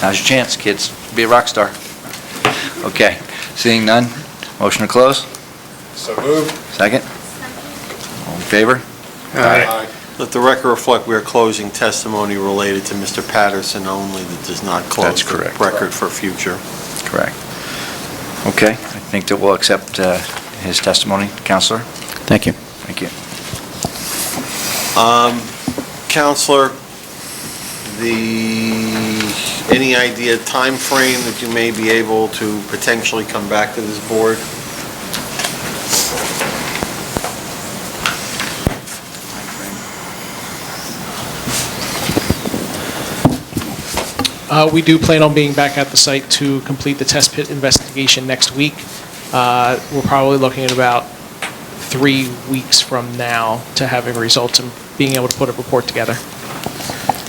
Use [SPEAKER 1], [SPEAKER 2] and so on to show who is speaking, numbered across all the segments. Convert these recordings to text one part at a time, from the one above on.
[SPEAKER 1] Now's your chance, kids, be a rock star. Okay, seeing none, motion to close?
[SPEAKER 2] So moved.
[SPEAKER 1] Second? All in favor?
[SPEAKER 2] Aye.
[SPEAKER 3] Let the record reflect, we are closing testimony related to Mr. Patterson only that does not
[SPEAKER 1] That's
[SPEAKER 3] close the
[SPEAKER 1] correct.
[SPEAKER 3] record for future.
[SPEAKER 1] Correct. Okay, I think that we'll accept uh, his testimony. Counselor?
[SPEAKER 4] Thank you.
[SPEAKER 1] Thank you.
[SPEAKER 3] Counselor, the, any idea time frame that you may be able to potentially come back to this board?
[SPEAKER 5] Uh, We do plan on being back at the site to complete the test pit investigation next week. Uh, We're probably looking at about three weeks from now to having results and being able to put a report together.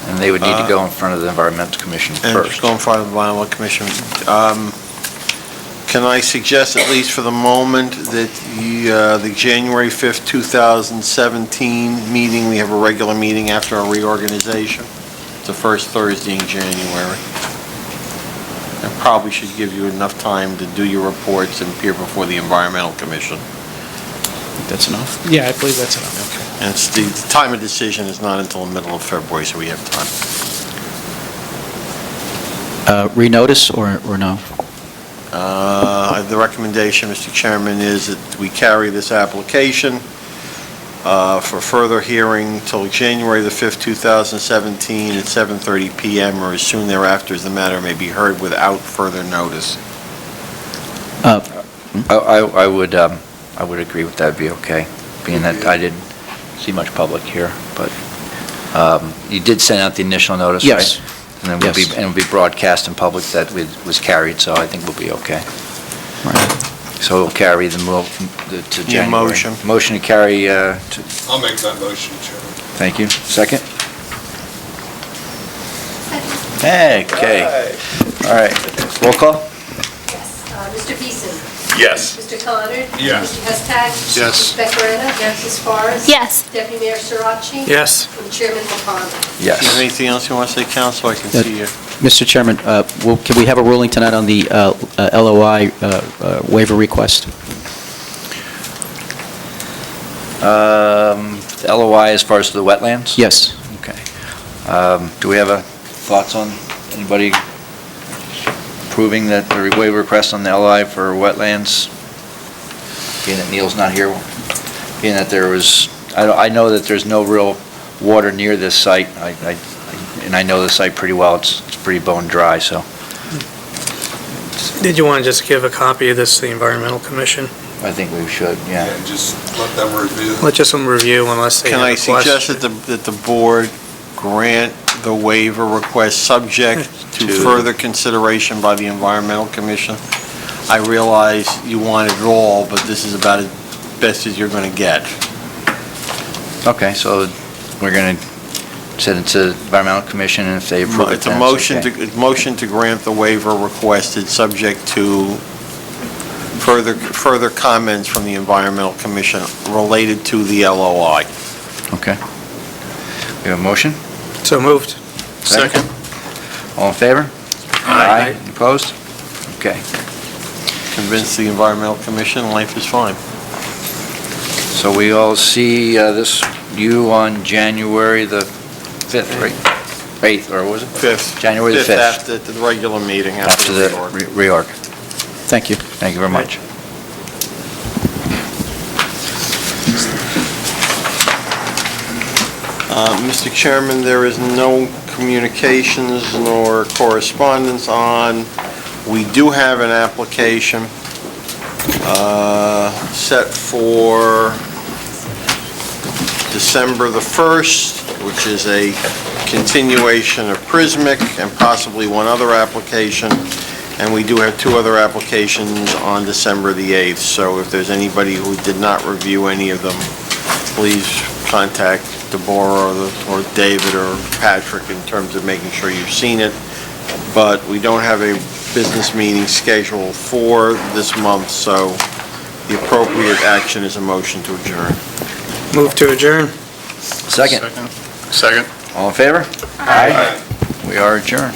[SPEAKER 1] And they would need to go in front of the Environmental Commission
[SPEAKER 3] Uh, And just
[SPEAKER 1] first.
[SPEAKER 3] go in front of the Environmental Commission. Um, Can I suggest, at least for the moment, that the, uh, the January 5th, 2017 meeting, we have a regular meeting after our reorganization? It's the first Thursday in January. That probably should give you enough time to do your reports and appear before the Environmental Commission.
[SPEAKER 4] That's enough?
[SPEAKER 5] Yeah, I believe that's enough.
[SPEAKER 3] And it's, the the time of decision is not until the middle of February, so we have time.
[SPEAKER 4] Uh, Renotice or or no?
[SPEAKER 3] Uh, The recommendation, Mr. Chairman, is that we carry this application uh, for further hearing till January the 5th, 2017, at 7:30 PM or as soon thereafter as the matter may be heard without further notice.
[SPEAKER 4] Uh,
[SPEAKER 1] I, I I would, um, I would agree with that, be okay, being that I didn't see much public here, but um, you did send out the initial notice, right?
[SPEAKER 4] Yes.
[SPEAKER 1] And then we'll be,
[SPEAKER 4] Yes.
[SPEAKER 1] and it'll be broadcast in public that we- was carried, so I think we'll be okay.
[SPEAKER 4] Right.
[SPEAKER 1] So we'll carry the mo, the- to January.
[SPEAKER 3] motion.
[SPEAKER 1] Motion to carry, uh, to,
[SPEAKER 2] I'll make that motion, Chairman.
[SPEAKER 1] thank you. Second? Hey, okay, all right. Roll call?
[SPEAKER 6] Yes. Uh, Mr. Beeson?
[SPEAKER 2] Yes.
[SPEAKER 6] Mr. Connor?
[SPEAKER 2] Yes.
[SPEAKER 6] Mr. Hestag?
[SPEAKER 2] Yes.
[SPEAKER 6] Ms. Becker? Yes. Ms. Forrest?
[SPEAKER 7] Yes.
[SPEAKER 6] Deputy Mayor Sirachi?
[SPEAKER 8] Yes.
[SPEAKER 6] And Chairman LaFawn?
[SPEAKER 3] Do you have
[SPEAKER 1] Yes.
[SPEAKER 3] anything else you want to say, Counsel? I can see you.
[SPEAKER 4] Mr. Chairman, uh, will- can we have a ruling tonight on the uh, uh, LOI uh, uh, waiver request?
[SPEAKER 1] Um, LOI as far as the wetlands?
[SPEAKER 4] Yes.
[SPEAKER 1] Okay. Um, Do we have uh, thoughts on anybody approving that the waiver request on the LI for wetlands? Being that Neil's not here, being that there was, I don't- I know that there's no real water near this site, I- I- and I know the site pretty well, it's it's pretty bone dry, so
[SPEAKER 8] Did you want to just give a copy of this to the Environmental Commission?
[SPEAKER 1] I think we should, yeah.
[SPEAKER 2] And just let them review.
[SPEAKER 8] Let just some review unless they
[SPEAKER 3] Can
[SPEAKER 8] have
[SPEAKER 3] I
[SPEAKER 8] a
[SPEAKER 3] suggest
[SPEAKER 8] question.
[SPEAKER 3] that the, that the board grant the waiver request subject to
[SPEAKER 1] To-
[SPEAKER 3] further consideration by the Environmental Commission? I realize you want it all, but this is about as best as you're going to get.
[SPEAKER 1] Okay, so we're going to send it to Environmental Commission, and if they approve it,
[SPEAKER 3] It's a
[SPEAKER 1] then
[SPEAKER 3] motion
[SPEAKER 1] okay.
[SPEAKER 3] to, it's motion to grant the waiver requested, subject to further, further comments from the Environmental Commission related to the LOI.
[SPEAKER 1] Okay. We have a motion?
[SPEAKER 8] So moved.
[SPEAKER 1] Second. All in favor?
[SPEAKER 8] Aye.
[SPEAKER 1] Opposed? Okay.
[SPEAKER 3] Convince the Environmental Commission, life is fine.
[SPEAKER 1] So we all see uh, this, you on January the 5th, right? 8th, or was it?
[SPEAKER 3] Fifth.
[SPEAKER 1] January the 5th.
[SPEAKER 3] Fifth, after the regular meeting,
[SPEAKER 1] After
[SPEAKER 3] after the
[SPEAKER 1] the
[SPEAKER 3] reorg.
[SPEAKER 1] re- reorg.
[SPEAKER 4] Thank you.
[SPEAKER 1] Thank you very much.
[SPEAKER 3] Uh, Mr. Chairman, there is no communications nor correspondence on. We do have an application uh, set for December the 1st, which is a continuation of Prismic and possibly one other application. And we do have two other applications on December the 8th. So if there's anybody who did not review any of them, please contact Deborah or the- or David or Patrick in terms of making sure you've seen it. But we don't have a business meeting scheduled for this month, so the appropriate action is a motion to adjourn.
[SPEAKER 8] Move to adjourn.
[SPEAKER 1] Second,
[SPEAKER 2] Second.
[SPEAKER 1] all in favor? Aye. We are adjourned.